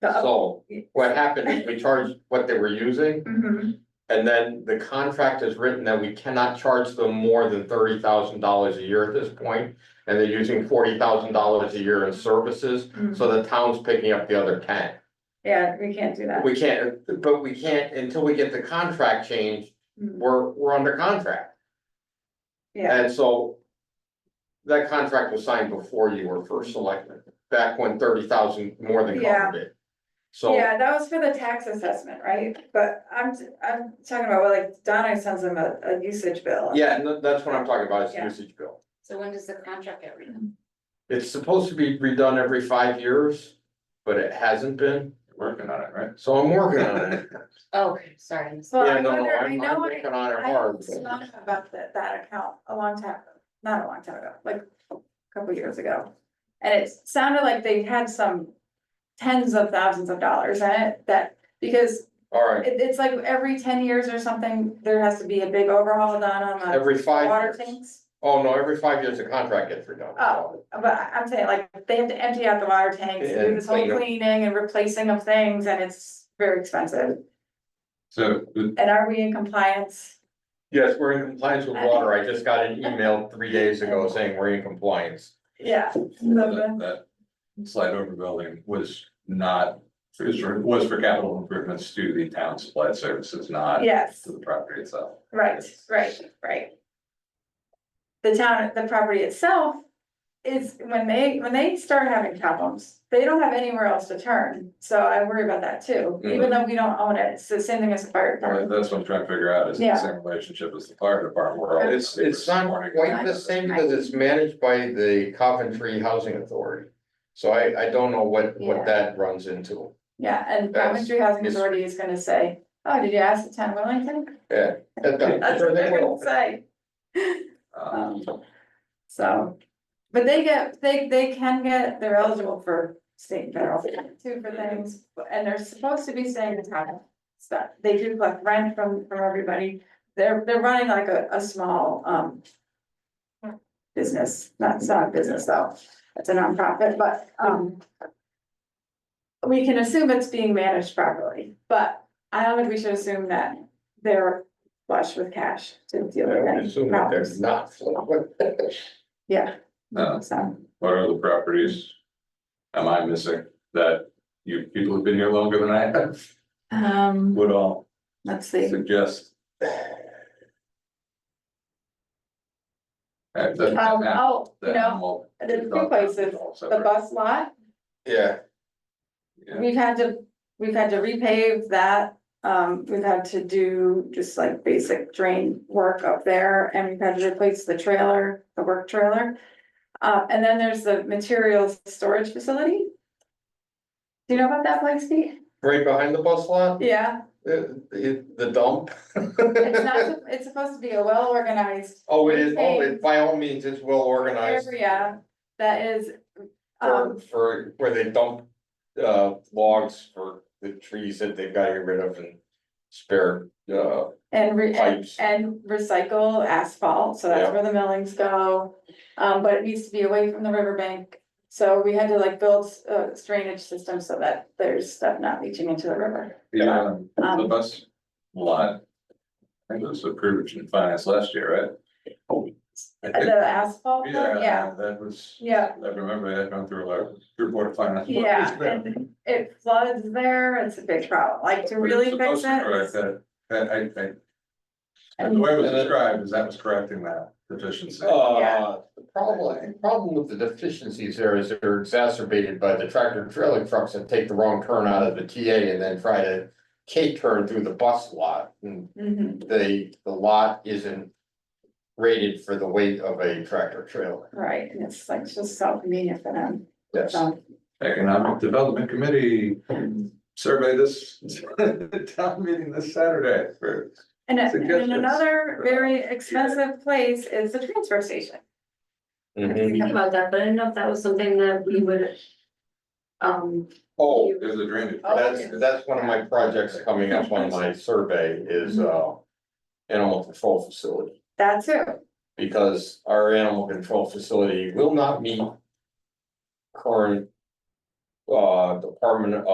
The up- So what happened is we charged what they were using Mhm. and then the contract is written that we cannot charge them more than thirty thousand dollars a year at this point, And they're using forty thousand dollars a year in services, Mm. so the town's picking up the other ten. Yeah, we can't do that. We can't, but we can't, until we get the contract changed, Mm. we're, we're under contract. Yeah, And so that contract was signed before you were first selected, back when thirty thousand more than covered it. So, yeah, that was for the tax assessment, right? But I'm, I'm talking about, well, like Donna sends them a, a usage bill. yeah, and tha- that's what I'm talking about, is Yeah. usage bill. So when does the contract get renewed? It's supposed to be redone every five years, but it hasn't been, Working on it, right? so I'm working on it. Oh, okay, sorry. I missed- Well, Yeah, I no, no, wonder, I I'm, I'm know, I, working on it I hard. spoke about that, that account a long time, ago. not a long time ago, like a couple years ago. And it sounded like they had some tens of thousands of dollars in it that, because Alright, it, it's like every ten years or something, there has to be a big overhaul done on the every water five years. tanks. Oh, no, every five years the contract gets redone. Oh, but I- I'm saying like, they have to empty out the water tanks, and do And this whole clean 'em. cleaning and replacing of things, and it's very expensive. So, the- And are we in compliance? Yes, we're in compliance with water. I just got an email three days ago saying we're in compliance. Yeah. that, that slide over building was not, is, was for capital improvements to the town supply services, not Yes, to the property itself. right, right, right. The town, the property itself is, when they, when they start having problems, they don't have anywhere else to turn. So I worry about that too, even though we don't own it, it's the same thing as a fire Or department. that's what I'm trying to figure out, is the Yeah. same relationship as the fire department, where all. It's, it's not quite the same because it's managed by the Coventry Housing Authority. So I, I don't know what, Yeah. what that runs into. Yeah, and That's- Coventry Housing it's- Authority is gonna say, oh, did you ask the town of Wellington? That's what they're gonna say, Um, so. But they get, they, they can get, they're eligible for state and federal too for things, and they're supposed to be staying in town. So they do collect rent from, from everybody, they're, they're running like a, a small, um. Business, not, it's not a business though, it's a nonprofit, but, um. We can assume it's being managed properly, but I don't think we should assume that they're flush with cash to deal with I any assume that there's problems, not. yeah. Uh, No. So, What are the properties? Am I missing that you people have been here longer than I have um, would all let's see, suggest? Uh, the- um, oh, you the know, animal- there's two places, the bus lot, Yeah, Yeah. we've had to, we've had to repave that. Um, we've had to do just like basic drain work up there and we've had to replace the trailer, the work trailer. Uh, and then there's the materials storage facility. Do you know about that place, Pete? right behind the bus lot. Yeah, The, the- the dump? it's not, it's supposed to be a well organized Oh, it is, oh, it, by all means, it's well organized area that is. for, Um, for, where they dump, uh, logs for the trees that they've got to get rid of and spare, uh, and re- and pipes. And recycle asphalt, so that's Yeah. where the millings go. Um, but it needs to be away from the riverbank. So we had to like build a drainage system so that there's stuff not leaching into the river. Yeah, um, the Um, bus lot. I think it was approved in finance last year, right? I think- Uh, The asphalt, part, yeah, Yeah, that was. yeah, I remember that going through a, through board of finance. yeah, and it floods there, it's a big problem, like to really fix Correct, it. that, that, I think. The And way it was described is that was correcting that deficiency. Uh, the problem, the problem with the deficiencies there is they're exacerbated by the tractor trailer trucks that take the wrong turn out of the TA and then try to K-turn through the bus lot. And Mhm, the, the lot isn't rated for the weight of a tractor trailer. right, and it's like just so convenient for them, Yes. so. Economic Development Committee survey this, town meeting this Saturday for. And and Suggestions. another very expensive place is the transfer station. I didn't think about that, but I didn't know if that was something that we would. Um, Oh, There's a drainage. Oh, that's, that's one of my projects coming up on my survey is, uh, animal control facility. That's it, Because our animal control facility will not meet current uh, Department